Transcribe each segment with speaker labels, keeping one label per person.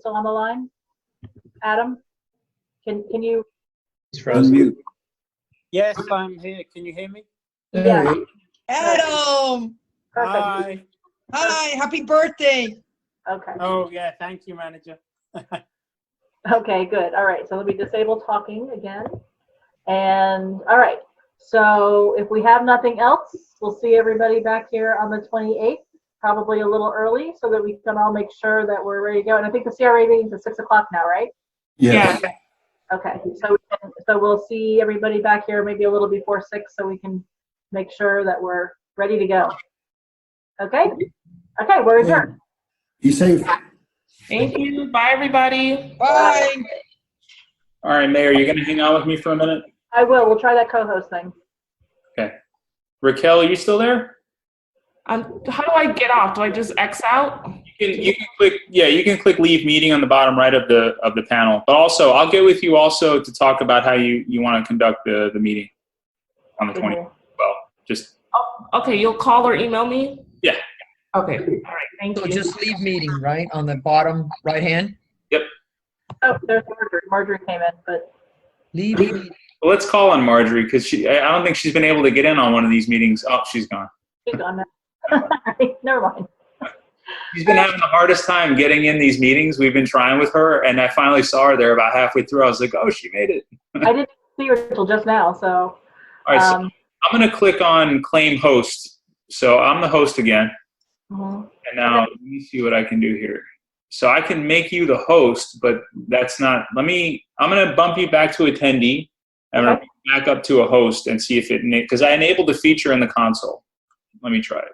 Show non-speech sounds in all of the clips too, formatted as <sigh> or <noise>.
Speaker 1: still on the line? Adam? Can, can you,
Speaker 2: He's
Speaker 3: Unmute.
Speaker 2: frozen.
Speaker 4: Yes, I'm here. Can you hear me?
Speaker 1: Yeah.
Speaker 2: There he-
Speaker 5: Adam!
Speaker 1: perfect,
Speaker 4: Hi.
Speaker 5: Hi, happy birthday.
Speaker 1: okay,
Speaker 4: Oh, yeah, thank you, manager. <laughs>
Speaker 1: okay, good, all right, so let me disable talking again. And, all right, so if we have nothing else, we'll see everybody back here on the 28th, probably a little early, so that we can all make sure that we're ready to go. And I think the CRA meeting's at 6 o'clock now, right?
Speaker 3: Yes.
Speaker 1: Okay, so, so we'll see everybody back here maybe a little before six, so we can make sure that we're ready to go. Okay? Okay, we're adjourned.
Speaker 3: Be safe.
Speaker 6: Thank you. Bye, everybody.
Speaker 5: Bye.
Speaker 2: All right, Mayor, you're going to hang out with me for a minute?
Speaker 1: I will, we'll try that co-host thing.
Speaker 2: Raquel, are you still there?
Speaker 6: Um, how do I get off? Do I just X out?
Speaker 2: You can, you can click, yeah, you can click leave meeting on the bottom right of the, of the panel. But also, I'll get with you also to talk about how you, you want to conduct the, the meeting on the 20th. Well, just,
Speaker 6: Okay, you'll call or email me?
Speaker 2: Yeah.
Speaker 6: Okay, all right, thank
Speaker 7: So
Speaker 6: you.
Speaker 7: just leave meeting, right, on the bottom right hand?
Speaker 1: Oh, there's Marjorie, Marjorie came in, but,
Speaker 7: Leave meeting.
Speaker 2: let's call on Marjorie because she, I I don't think she's been able to get in on one of these meetings. Oh, she's gone.
Speaker 1: she's gone now. <laughs> Never mind.
Speaker 2: She's been having the hardest time getting in these meetings. We've been trying with her and I finally saw her there about halfway through. I was like, oh, she made it.
Speaker 1: I didn't see her until just now, so,
Speaker 2: All right, so
Speaker 1: um,
Speaker 2: I'm going to click on claim host. So I'm the host again.
Speaker 1: mhm.
Speaker 2: And now let me see what I can do here. So I can make you the host, but that's not. Let me. I'm going to bump you back to attendee. I'm going to back up to a host and see if it because I enabled the feature in the console. Let me try it.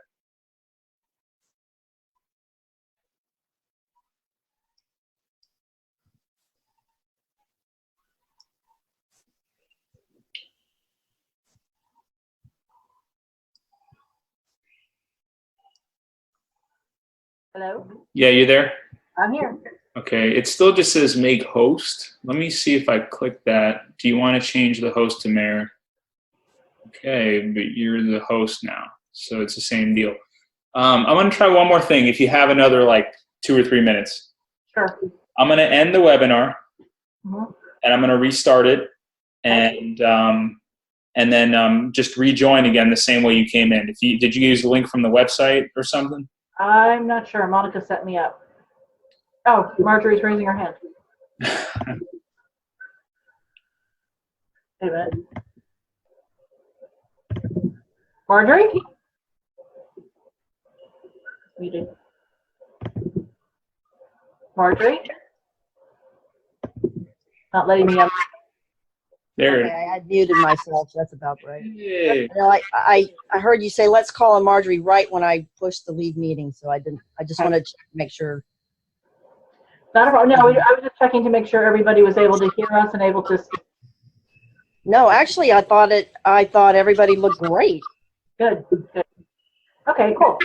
Speaker 1: hello,
Speaker 2: Yeah, you there?
Speaker 1: I'm here.
Speaker 2: Okay. It still just says make host. Let me see if I click that. Do you want to change the host to mayor? Okay, but you're the host now, so it's the same deal. Um, I'm going to try one more thing. If you have another like two or three minutes,
Speaker 1: Sure.
Speaker 2: I'm going to end the webinar.
Speaker 1: Mhm.
Speaker 2: and I'm going to restart it and um, and then um, just rejoin again the same way you came in. If you did you use the link from the website or something?
Speaker 1: I'm not sure, Monica set me up. Oh, Marjorie's raising her hand. Wait a minute. Marjorie? Muted. Marjorie? Not letting me up.
Speaker 2: There.
Speaker 8: Okay, I muted myself. That's about right.
Speaker 2: Yay.
Speaker 8: No, I, I, I heard you say, let's call on Marjorie right when I pushed the lead meeting. So I didn't, I just wanted to make sure.
Speaker 1: Not a problem. No, we- I was just checking to make sure everybody was able to hear us and able to speak.
Speaker 8: No, actually, I thought it, I thought everybody looked great.
Speaker 1: Good, good. Okay, cool.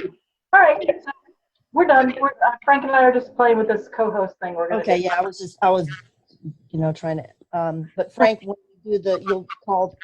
Speaker 1: All right, so we're done. We're- uh, Frank and I are just playing with this co-host thing we're gonna do.
Speaker 8: Okay, yeah, I was just, I was, you know, trying to, um, but Frank, when you do the, you'll call